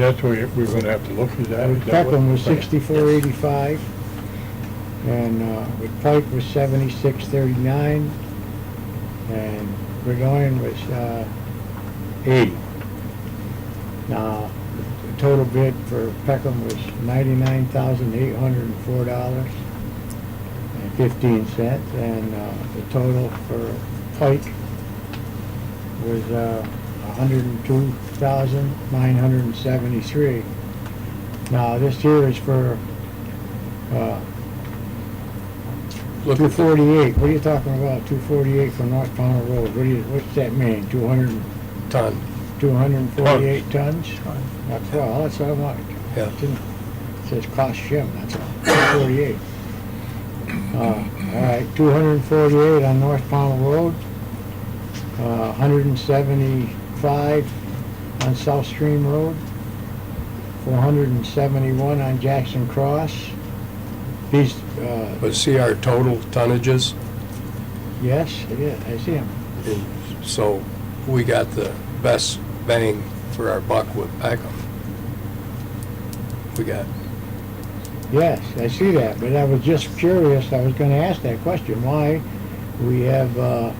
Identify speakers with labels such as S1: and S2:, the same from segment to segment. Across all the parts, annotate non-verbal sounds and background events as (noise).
S1: That's where we're gonna have to look at that.
S2: And
S1: Is that what-
S2: Peckham was sixty-four eighty-five, and, uh, with Pike was seventy-six thirty-nine, and Burgoyne was, uh, eighty. Now, the total bid for Peckham was ninety-nine thousand eight hundred and four dollars and fifteen cents, and, uh, the total for Pike was, uh, a hundred and two thousand nine hundred and seventy-three. Now, this here is for, uh,
S1: Look
S2: two
S1: at the-
S2: forty-eight, what are you talking about, two forty-eight from North Pownell Road, what do you, what's that mean, two hundred,
S1: Ton,
S2: two hundred and forty-eight tons?
S1: Ton.
S2: That's all, that's what I want.
S1: Oh. Yeah.
S2: It didn't- it Says cost Jim, that's all, two forty-eight. Uh, all right, two hundred and forty-eight on North Pownell Road, uh, hundred and seventy-five on South Stream Road, four hundred and seventy-one on Jackson Cross. These, uh,
S1: but see our total tonnages,
S2: Yes, it is, I see him.
S1: and
S3: Mm-hmm.
S1: so we got the best bang for our buck with Peckham. We got,
S2: Yes, I see that, but I was just curious, I was gonna ask that question, why we have, uh,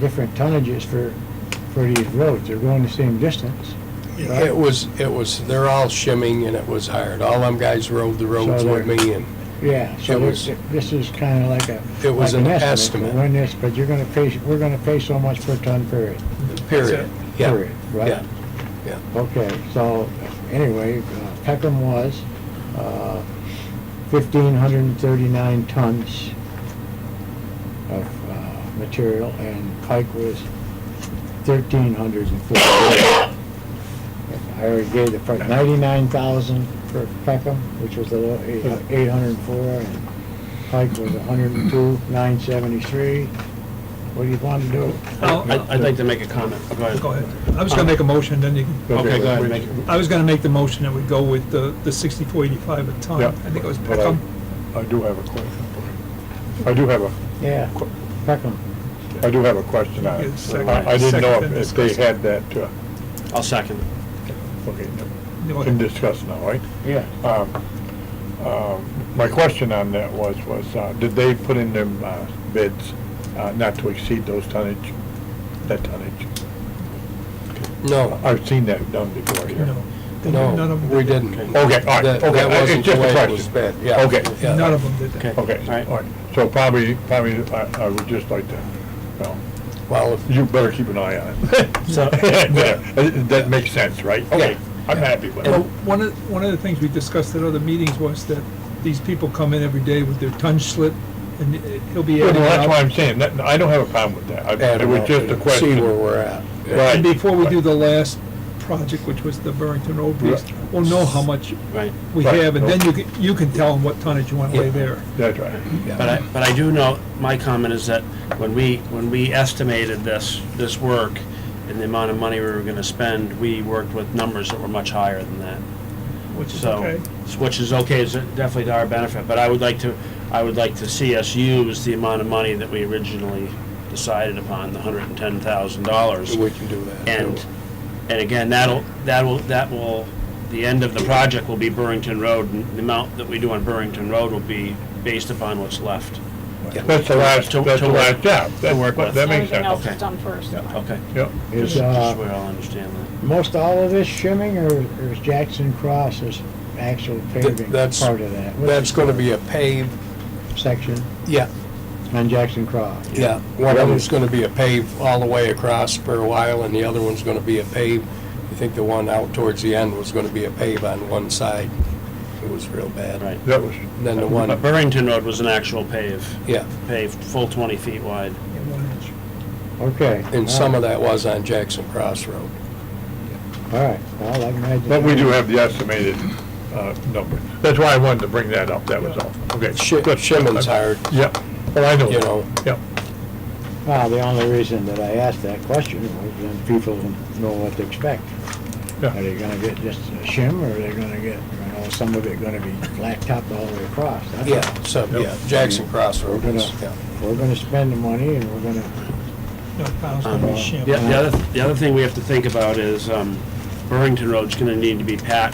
S2: different tonnages for, for these roads, they're going the same distance. right?
S1: it was, it was, they're all shimming and it was hard. All them guys rode the roads
S2: So
S1: with
S2: they're-
S1: me and
S2: Yeah, so
S1: It was-
S2: this, this is kinda like a.
S1: It was
S2: like
S1: an
S2: for
S1: estimate.
S2: When this, but you're gonna pay, we're gonna pay so much per ton period.
S1: period. Yeah.
S2: Period, right?
S1: Yeah.
S2: Okay, so, anyway, uh, Peckham was uh, fifteen hundred and thirty-nine tons of uh, material, and Pike was thirteen hundred and fifty. I already gave the price, ninety-nine thousand for Peckham, which was the eight hundred and four, and Pike was a hundred and two, nine seventy-three. What do you want to do?
S4: I'd I'd like to make a comment. Go ahead.
S5: Go ahead. I was gonna make a motion, then you can.
S4: Okay, go ahead, make it.
S5: I was gonna make the motion that we go with the, the sixty-four eighty-five a ton.
S3: Yeah,
S5: I think it was
S3: but I-
S5: Peckham.
S3: I do have a question. I do have a,
S2: Yeah, Peckham.
S3: I do have a question on
S5: Yeah,
S3: it.
S5: second-
S3: I I didn't know if-
S5: second
S3: if they had
S5: discussion.
S3: that, uh,
S4: I'll second.
S3: okay,
S5: Go
S3: no,
S5: ahead.
S3: can discuss now, right?
S2: Yeah.
S3: Um, um, My question on that was, was uh, did they put in them uh, bids uh, not to exceed those tonnage, that tonnage?
S1: No,
S3: I've seen that done before here.
S5: No. They- none
S1: no,
S5: of them
S1: we
S5: did that.
S1: didn't.
S3: Okay, all right,
S1: That-
S3: okay,
S1: That
S3: it's
S1: wasn't the
S3: just a
S1: way it
S3: question.
S1: was bid, yeah.
S3: Okay.
S1: Yeah.
S5: None of them did that.
S4: Okay.
S3: Okay,
S4: All right.
S3: all right. So probably, probably, I I would just like to, well,
S1: Well, if-
S3: you better keep an eye on it.
S4: (laughs)
S3: (laughs)
S4: So-
S3: That that makes sense, right? Okay, I'm happy with
S5: Well,
S3: it.
S5: one of, one of the things we discussed at other meetings was that these people come in every day with their ton slip, and it- he'll be
S3: Yeah,
S5: adding
S3: well, that's why
S5: up.
S3: I'm saying, that, I don't have a problem with that. I-
S1: add
S3: It
S1: them
S3: was
S4: uh,
S1: up
S3: just a
S1: and See where
S3: question.
S1: we're at.
S3: Right.
S5: And before we do the last project, which was the Burrington Road piece, we'll know how much
S4: Right.
S5: we
S3: Right.
S5: have, and then you can, you can tell them what tonnage you want to lay there.
S3: That's right.
S4: But I, but I do know, my comment is that when we, when we estimated this, this work and the amount of money we were gonna spend, we worked with numbers that were much higher than that.
S5: Which is
S4: So,
S5: okay.
S4: which is okay, it's definitely to our benefit, but I would like to, I would like to see us use the amount of money that we originally decided upon, the hundred and ten thousand dollars.
S1: We can do that.
S4: And, and again, that'll, that'll, that will, the end of the project will be Burrington Road, and the amount that we do on Burrington Road will be based upon what's left.
S3: That's the last,
S4: To-
S3: that's
S4: to
S3: the last
S4: work-
S3: job.
S4: to work with.
S3: That that makes
S6: Everything
S3: sense.
S6: else
S4: Okay.
S6: is done first.
S4: Okay.
S3: Yep.
S2: Is,
S4: Just just
S2: uh,
S4: where I'll understand that.
S2: most all of this shimming, or or is Jackson Cross is actual paving
S1: that's-
S2: part of that? What's
S1: That's gonna be a paved,
S2: the Section
S1: yeah,
S2: on Jackson Cross.
S1: yeah. One of them's gonna be a paved all the way across for a while, and the other one's gonna be a paved. I think the one out towards the end was gonna be a pave on one side. It was real bad.
S4: Right.
S3: That was,
S1: Then the
S4: But
S1: one,
S4: Burrington Road was an actual pave,
S1: yeah,
S4: paved, full twenty feet wide.
S5: Yeah, one inch.
S2: Okay.
S1: and some of that was on Jackson Cross Road.
S2: All right, well, I imagine.
S3: but we do have the estimated uh, number. That's why I wanted to bring that up, that was all. Okay.
S1: Shi-
S3: Good.
S1: Shimon's hard,
S3: Yep. Oh, I know.
S1: You know.
S3: Yep.
S2: Well, Ah, the only reason that I asked that question was then people know what to expect.
S3: Yeah.
S2: Are they gonna get just a shim, or are they gonna get, you know, some of it gonna be flat topped all the way across? That's-
S1: yeah, so, yeah, Jackson Cross
S2: We're
S1: Road
S2: gonna,
S1: is, yeah.
S2: we're gonna spend the money, and we're gonna,
S5: No, pounds gonna be shim.
S4: The, the other, the other thing we have to think about is, um, Burrington Road's gonna need to be patched